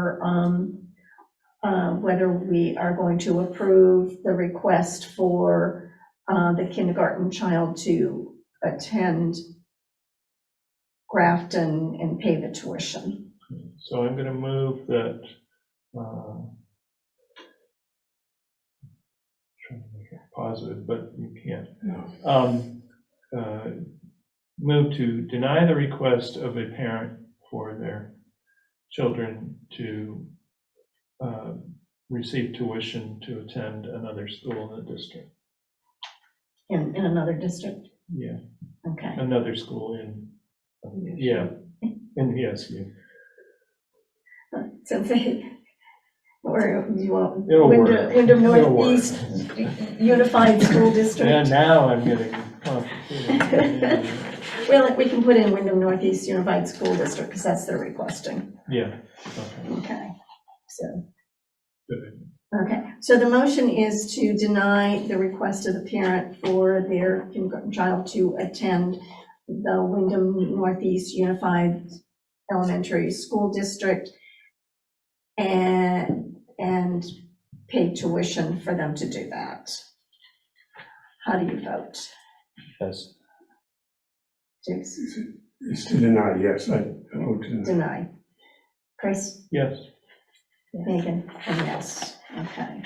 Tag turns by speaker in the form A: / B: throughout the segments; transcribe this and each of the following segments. A: for, um, uh, whether we are going to approve the request for uh, the kindergarten child to attend Grafton and pay the tuition.
B: So I'm going to move that, uh, trying to make it positive, but you can't. Um, uh, Move to deny the request of a parent for their children to uh, receive tuition to attend another school in the district.
A: In, in another district,
B: Yeah,
A: okay.
B: another school in, yeah, in the SU.
A: So they, or do you want?
B: It'll
A: Wyndham-
B: work.
A: Wyndham
B: It'll work.
A: Northeast Unified School
B: Yeah,
A: District.
B: now I'm getting complicated.
A: Well, we can put in Wyndham Northeast Unified School District because that's their requesting.
B: Yeah, okay,
A: Okay, so,
B: good.
A: okay. So the motion is to deny the request of the parent for their kindergarten child to attend the Wyndham Northeast Unified Elementary School District and, and pay tuition for them to do that. How do you vote?
B: Yes.
A: Jason?
C: It's to deny, yes, I I vote to deny.
A: Deny. Chris,
B: Yes,
A: Megan, and yes, okay,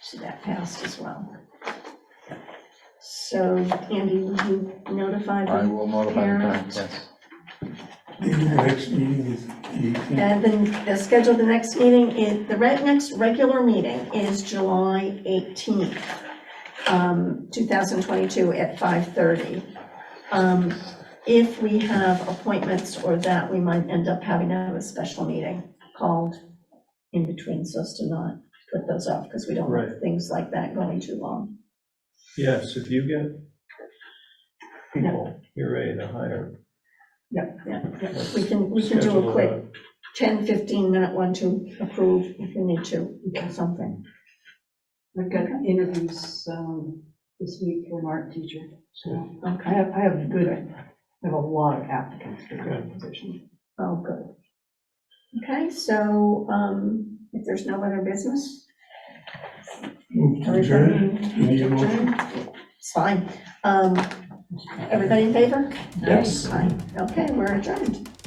A: so that passed as well. So Andy, will you notify
D: I
A: them?
D: will notify the
A: Parents.
D: parents, yes.
C: The next meeting is the 18th.
A: And then the schedule, the next meeting is, the re- next regular meeting is July 18th, um, 2022 at 5:30. Um, If we have appointments or that, we might end up having to have a special meeting called in between, so as to not put those off, because we don't want
B: Right.
A: things like that going too long.
B: yes, if you get people, you're ready to hire.
A: Yep, yep, yep. We can, we can do a quick 10, 15-minute one to approve if you need to, or something.
E: I've got interviews um, this week for an art teacher, so I
A: Okay,
E: have, I have good, I have a lot of applicants for that position.
A: oh, good. Okay, so um, if there's no other business.
C: Move to adjourn.
A: everybody-
C: You need a motion?
A: It's fine. Um, Everybody in favor?
C: Yes.
A: Fine. Okay, we're adjourned.